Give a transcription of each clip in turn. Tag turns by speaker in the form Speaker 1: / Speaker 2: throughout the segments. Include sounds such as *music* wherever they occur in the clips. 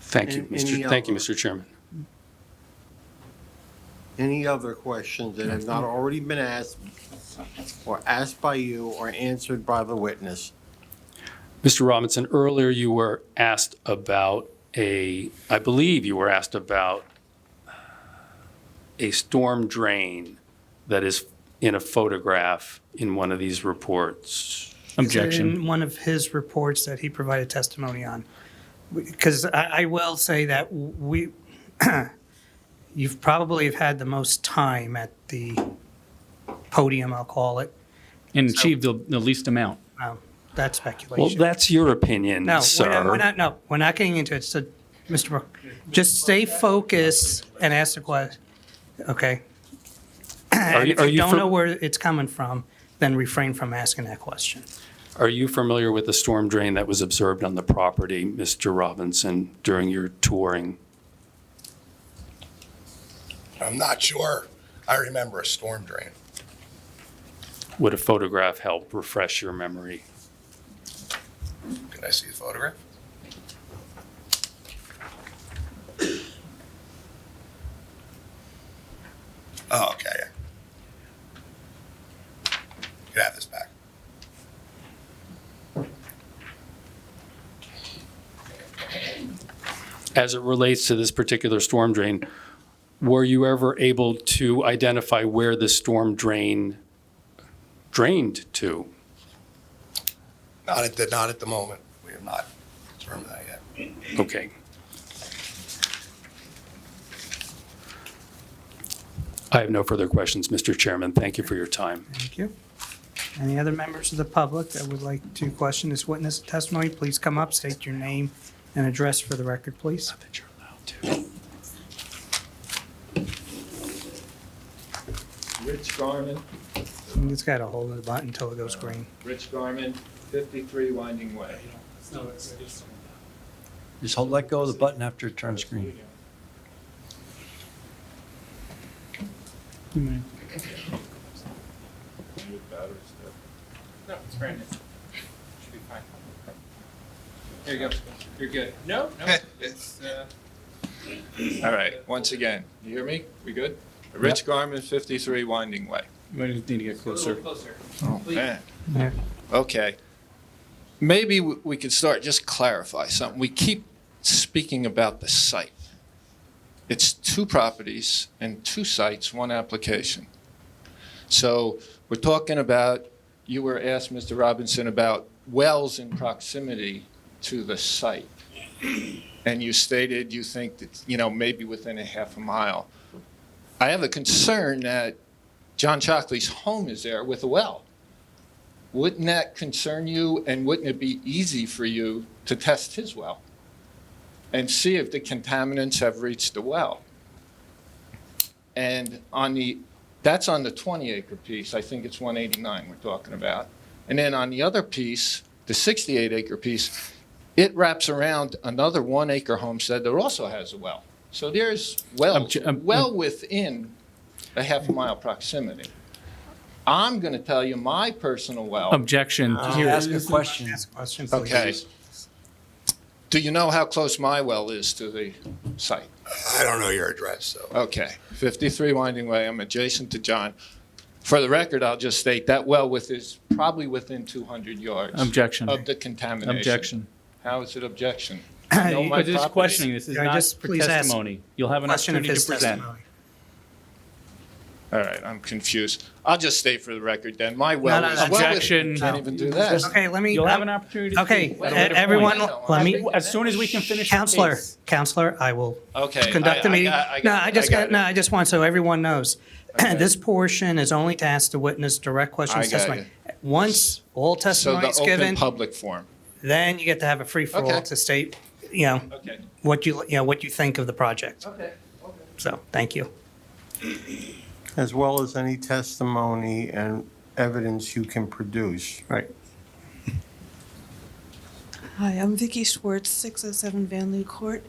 Speaker 1: Thank you,
Speaker 2: And any
Speaker 1: Mr. Thank you,
Speaker 2: other-
Speaker 1: Mr. Chairman.
Speaker 2: Any other questions that have not already been asked or asked by you or answered by the witness?
Speaker 1: Mr. Robinson, earlier you were asked about a, I believe you were asked about a storm drain that is in a photograph in one of these reports.
Speaker 3: Is it
Speaker 4: Objection.
Speaker 3: In one of his reports that he provided testimony on. Because I, I will say that we, *clears throat* you've probably have had the most time at the podium, I'll call it.
Speaker 4: And achieve the, the least amount.
Speaker 3: Um, That's
Speaker 1: Well,
Speaker 3: speculation.
Speaker 1: that's your opinion,
Speaker 3: No, we're not- we're
Speaker 1: sir.
Speaker 3: not, no, we're not getting into it. So, Mr. Brook, just stay focused and ask the question, okay?
Speaker 1: Are
Speaker 3: And
Speaker 1: you-
Speaker 3: if
Speaker 1: are
Speaker 3: you
Speaker 1: you
Speaker 3: don't
Speaker 1: fam-
Speaker 3: know where it's coming from, then refrain from asking that question.
Speaker 1: Are you familiar with the storm drain that was observed on the property, Mr. Robinson, during your touring?
Speaker 5: I'm not sure. I remember a storm drain.
Speaker 1: Would a photograph help refresh your memory?
Speaker 5: Can I see the photograph? Oh, okay. You can have this back.
Speaker 1: as it relates to this particular storm drain, were you ever able to identify where the storm drain drained to?
Speaker 5: Not at the, not at the moment. We have not determined that yet.
Speaker 1: Okay. I have no further questions, Mr. Chairman. Thank you for your time.
Speaker 3: Thank you. Any other members of the public that would like to question this witness testimony, please come up, state your name and address for the record, please.
Speaker 6: Rich Garman,
Speaker 3: It's got to hold the button until it goes green.
Speaker 6: Rich Garman, 53 Winding Way.
Speaker 7: Just hold, let go of the button after it turns green.
Speaker 6: No, it's brand new. Should be fine. There you go. You're good. No, no, it's, uh. All right, once again, you hear me? We good? Rich Garman, 53 Winding Way.
Speaker 4: You might need to get closer.
Speaker 6: Oh, man.
Speaker 3: Yeah.
Speaker 6: Okay. Maybe we we could start, just clarify something. We keep speaking about the site. It's two properties and two sites, one application. So we're talking about, you were asked, Mr. Robinson, about wells in proximity to the site. And you stated you think that, you know, maybe within a half a mile. I have a concern that John Chockley's home is there with a well. Wouldn't that concern you, and wouldn't it be easy for you to test his well and see if the contaminants have reached the well? And on the, that's on the 20-acre piece, I think it's 189 we're talking about. And then on the other piece, the 68-acre piece, it wraps around another one-acre homestead that also has a well. So there's wells,
Speaker 4: Obje- um,
Speaker 6: well within a half-mile proximity. I'm going to tell you my personal well.
Speaker 4: Um, Objection.
Speaker 3: Ah.
Speaker 7: Here, Uh, ask a question.
Speaker 3: Ask a question, please.
Speaker 6: Okay. Do you know how close my well is to the site?
Speaker 5: I don't know your address, so.
Speaker 6: Okay, 53 Winding Way, I'm adjacent to John. For the record, I'll just state that well with is probably within 200 yards
Speaker 4: Objection.
Speaker 6: of the contamination.
Speaker 4: Objection.
Speaker 6: How is it objection? know my
Speaker 4: But this is
Speaker 6: property.
Speaker 4: questioning. This is
Speaker 3: Yeah,
Speaker 4: not
Speaker 3: just
Speaker 4: for
Speaker 3: please ask
Speaker 4: testimony. You'll have an
Speaker 3: Question of
Speaker 4: opportunity
Speaker 3: his
Speaker 4: to present.
Speaker 3: testimony.
Speaker 6: All right, I'm confused. I'll just state for the record then, my well
Speaker 3: No, no,
Speaker 6: is.
Speaker 3: no.
Speaker 6: well with-
Speaker 4: Objection.
Speaker 6: Can't even do that.
Speaker 3: Okay, let me, uh,
Speaker 4: You'll have an opportunity. to
Speaker 3: okay, e-
Speaker 4: speak at a later point.
Speaker 3: everyone, let me,
Speaker 4: As soon as we can finish. the
Speaker 3: Counselor,
Speaker 4: case.
Speaker 3: Counselor, I will
Speaker 6: Okay.
Speaker 3: conduct the
Speaker 6: I- I
Speaker 3: meeting.
Speaker 6: got- I
Speaker 3: No,
Speaker 6: got
Speaker 3: I
Speaker 6: it,
Speaker 3: just
Speaker 6: got
Speaker 3: got, no,
Speaker 6: it.
Speaker 3: I just want, so everyone knows, *clears throat* this portion is only to ask the witness direct questions.
Speaker 6: I got
Speaker 3: testimony. Once all
Speaker 6: So
Speaker 3: testimony
Speaker 6: the
Speaker 3: is
Speaker 6: open
Speaker 3: given,
Speaker 6: public forum.
Speaker 3: then you get to have a free for all
Speaker 6: Okay.
Speaker 3: to state, you know,
Speaker 6: Okay.
Speaker 3: what you, you know, what you think of the project.
Speaker 6: Okay.
Speaker 3: So, thank you.
Speaker 2: As well as any testimony and evidence you can produce.
Speaker 3: Right.
Speaker 8: Hi, I'm Vicky Schwartz, 607 Van Loo Court.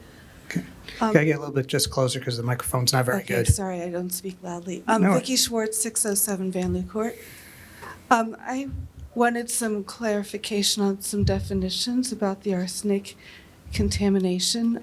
Speaker 8: Um,
Speaker 3: Gotta get a little bit just closer because the microphone's not very
Speaker 8: okay,
Speaker 3: good.
Speaker 8: Sorry, I don't speak loudly. I'm
Speaker 3: No.
Speaker 8: Vicky Schwartz, 607 Van Loo Court. Um, I wanted some clarification on some definitions about the arsenic contamination.